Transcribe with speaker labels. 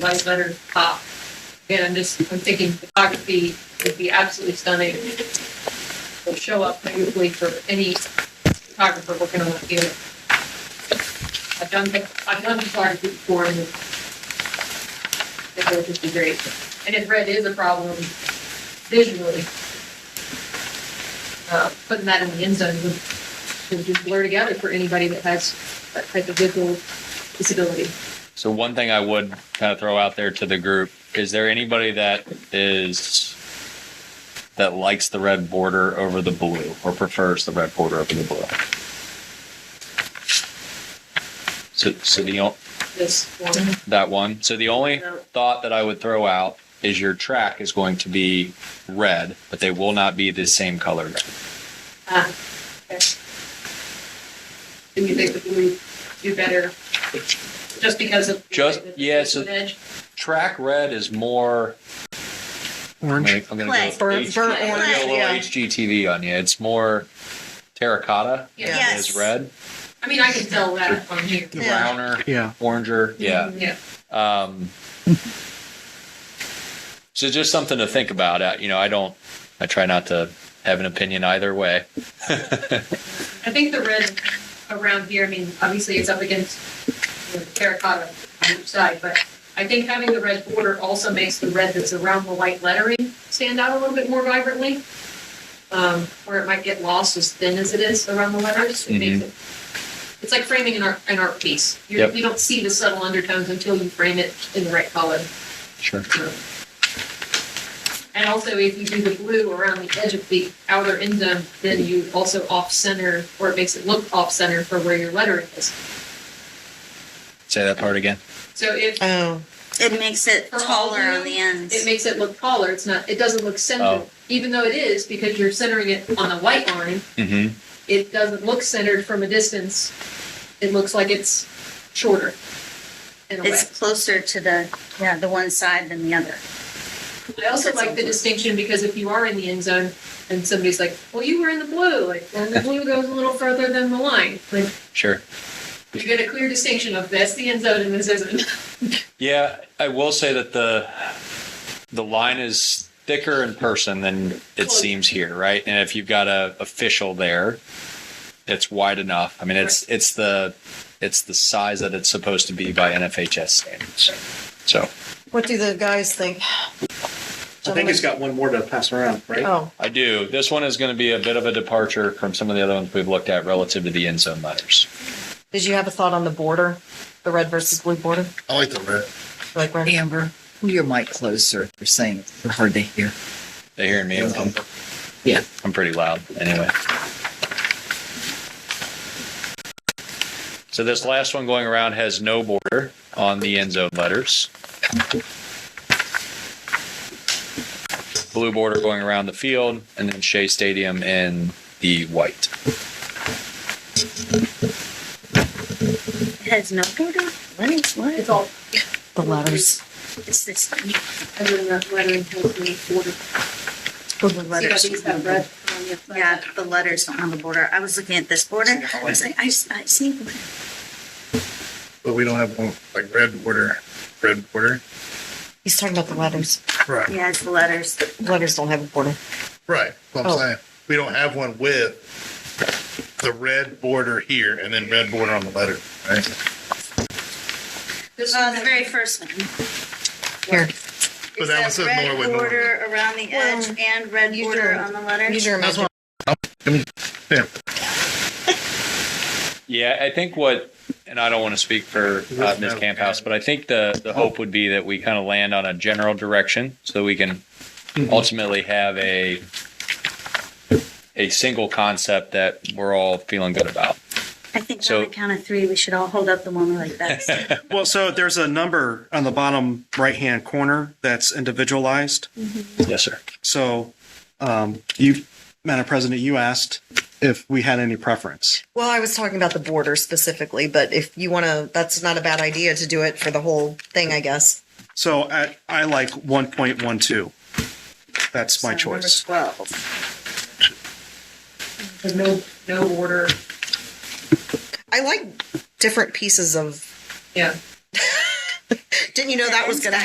Speaker 1: Life Letter Pop. Again, I'm just, I'm thinking photography would be absolutely stunning. Will show up beautifully for any photographer working on a field. I've done, I've done photography before and it would just be great. And if red is a problem visually, uh, putting that in the end zone would, would just blur together for anybody that has that type of visual disability.
Speaker 2: So one thing I would kind of throw out there to the group is there anybody that is that likes the red border over the blue or prefers the red border over the blue? So, so the o-
Speaker 1: This one,
Speaker 2: that one. So the only
Speaker 1: No.
Speaker 2: thought that I would throw out is your track is going to be red, but they will not be the same color. red.
Speaker 1: ah, okay. Do you think that we do better just because of
Speaker 2: Just-
Speaker 1: the-
Speaker 2: yeah, so-
Speaker 1: the edge?
Speaker 2: Track red is more. I'm
Speaker 3: Orange.
Speaker 2: gonna, I'm gonna go
Speaker 3: Burnt-
Speaker 2: H-
Speaker 3: burnt
Speaker 2: I'm gonna go
Speaker 3: orange,
Speaker 2: a little
Speaker 3: yeah.
Speaker 2: HGTV on you. It's more terracotta.
Speaker 1: Yeah.
Speaker 2: than it is
Speaker 3: Yes.
Speaker 2: red.
Speaker 1: I mean, I can tell that on here.
Speaker 3: Yeah. Mm-hmm.
Speaker 2: browner,
Speaker 3: Yeah.
Speaker 2: oranger. Yeah.
Speaker 1: Yeah,
Speaker 2: Um, so just something to think about. Uh, You know, I don't, I try not to have an opinion either way.
Speaker 1: I think the red around here, I mean, obviously it's up against you know, the terracotta on each side, but I think having the red border also makes the red that's around the white lettering stand out a little bit more vibrantly. Um, where it might get lost as thin as it is around the letters, it makes it, it's like framing an art, an art piece. You're,
Speaker 2: Yep.
Speaker 1: You don't see the subtle undertones until you frame it in the right color.
Speaker 2: Sure.
Speaker 1: And also, if you do the blue around the edge of the outer end zone, then you also off-center, or it makes it look off-center for where your lettering is.
Speaker 2: Say that part again.
Speaker 1: So if
Speaker 3: Oh.
Speaker 4: It makes it
Speaker 1: For all
Speaker 4: taller
Speaker 1: of
Speaker 4: on the ends.
Speaker 1: it makes it look taller, it's not, it doesn't look centered,
Speaker 2: Oh.
Speaker 1: even though it is, because you're centering it on the white line,
Speaker 2: Mm-hmm.
Speaker 1: it doesn't look centered from a distance. It looks like it's shorter in a way.
Speaker 4: it's closer to the yeah the one side than the other.
Speaker 1: I also like the distinction because if you are in the end zone and somebody's like, well, you were in the blue, like, well, the blue goes a little further than the line. Like,
Speaker 2: Sure.
Speaker 1: you get a clear distinction of that's the end zone and this isn't.
Speaker 2: Yeah. I will say that the, the line is thicker in person than it
Speaker 1: Close.
Speaker 2: seems here. Right. And if you've got a official there, it's wide enough. I mean, it's, it's the, it's the size that it's supposed to be by NFHS standards. So.
Speaker 3: What do the guys think?
Speaker 5: I think it's got one more to pass around, right?
Speaker 3: Oh.
Speaker 2: I do. This one is going to be a bit of a departure from some of the other ones we've looked at relative to the end zone letters.
Speaker 3: Did you have a thought on the border, the red versus blue border?
Speaker 6: I like the red.
Speaker 3: Like red?
Speaker 7: Amber, pull your mic closer. They're saying it's hard to hear.
Speaker 2: They hearing me? I'm,
Speaker 7: Yeah.
Speaker 2: I'm pretty loud anyway. So this last one going around has no border on the end zone letters. Blue border going around the field, and then Shea Stadium in the white.
Speaker 4: It has no border. What is what?
Speaker 1: It's all
Speaker 3: The letters.
Speaker 4: It's this thing.
Speaker 1: other than that lettering has been ordered.
Speaker 4: The
Speaker 1: See how
Speaker 4: letters.
Speaker 1: these have red on the outside?
Speaker 4: Yeah, the letters don't have the border. I was looking at this border. I was like, I, s- I see.
Speaker 6: But we don't have one like red border, red border.
Speaker 3: He's talking about the letters.
Speaker 6: Right.
Speaker 4: Yeah, it's the letters.
Speaker 3: Letters don't have a border.
Speaker 6: Right. What I'm
Speaker 3: Oh.
Speaker 6: saying. We don't have one with the red border here and then red border on the letter. Right.
Speaker 1: This
Speaker 4: Uh,
Speaker 1: one-
Speaker 4: the very first one.
Speaker 3: Here,
Speaker 6: But
Speaker 4: It
Speaker 6: that one says
Speaker 4: red
Speaker 6: Norwood, Norwood.
Speaker 4: border around the edge and red
Speaker 3: use
Speaker 4: border
Speaker 3: your-
Speaker 4: on the letter.
Speaker 3: use your
Speaker 6: That's
Speaker 3: imagination.
Speaker 6: Yeah.
Speaker 2: Yeah, I think what, and I don't want to speak for uh, Ms. Camphouse, but I think the, the hope would be that we kind of land on a general direction so we can Mm-hmm. ultimately have a a single concept that we're all feeling good about.
Speaker 4: I think
Speaker 2: So-
Speaker 4: on the count of three, we should all hold up the one we like best.
Speaker 5: Well, so there's a number on the bottom right-hand corner that's individualized.
Speaker 2: Yes, sir.
Speaker 5: So um, you, Madam President, you asked if we had any preference.
Speaker 3: Well, I was talking about the border specifically, but if you want to, that's not a bad idea to do it for the whole thing, I guess.
Speaker 5: So I, I like 1.12. That's my
Speaker 4: So number
Speaker 5: choice.
Speaker 4: Twelve.
Speaker 1: There's no, no order,
Speaker 3: I like different pieces of
Speaker 1: yeah.
Speaker 3: Didn't you know that was going to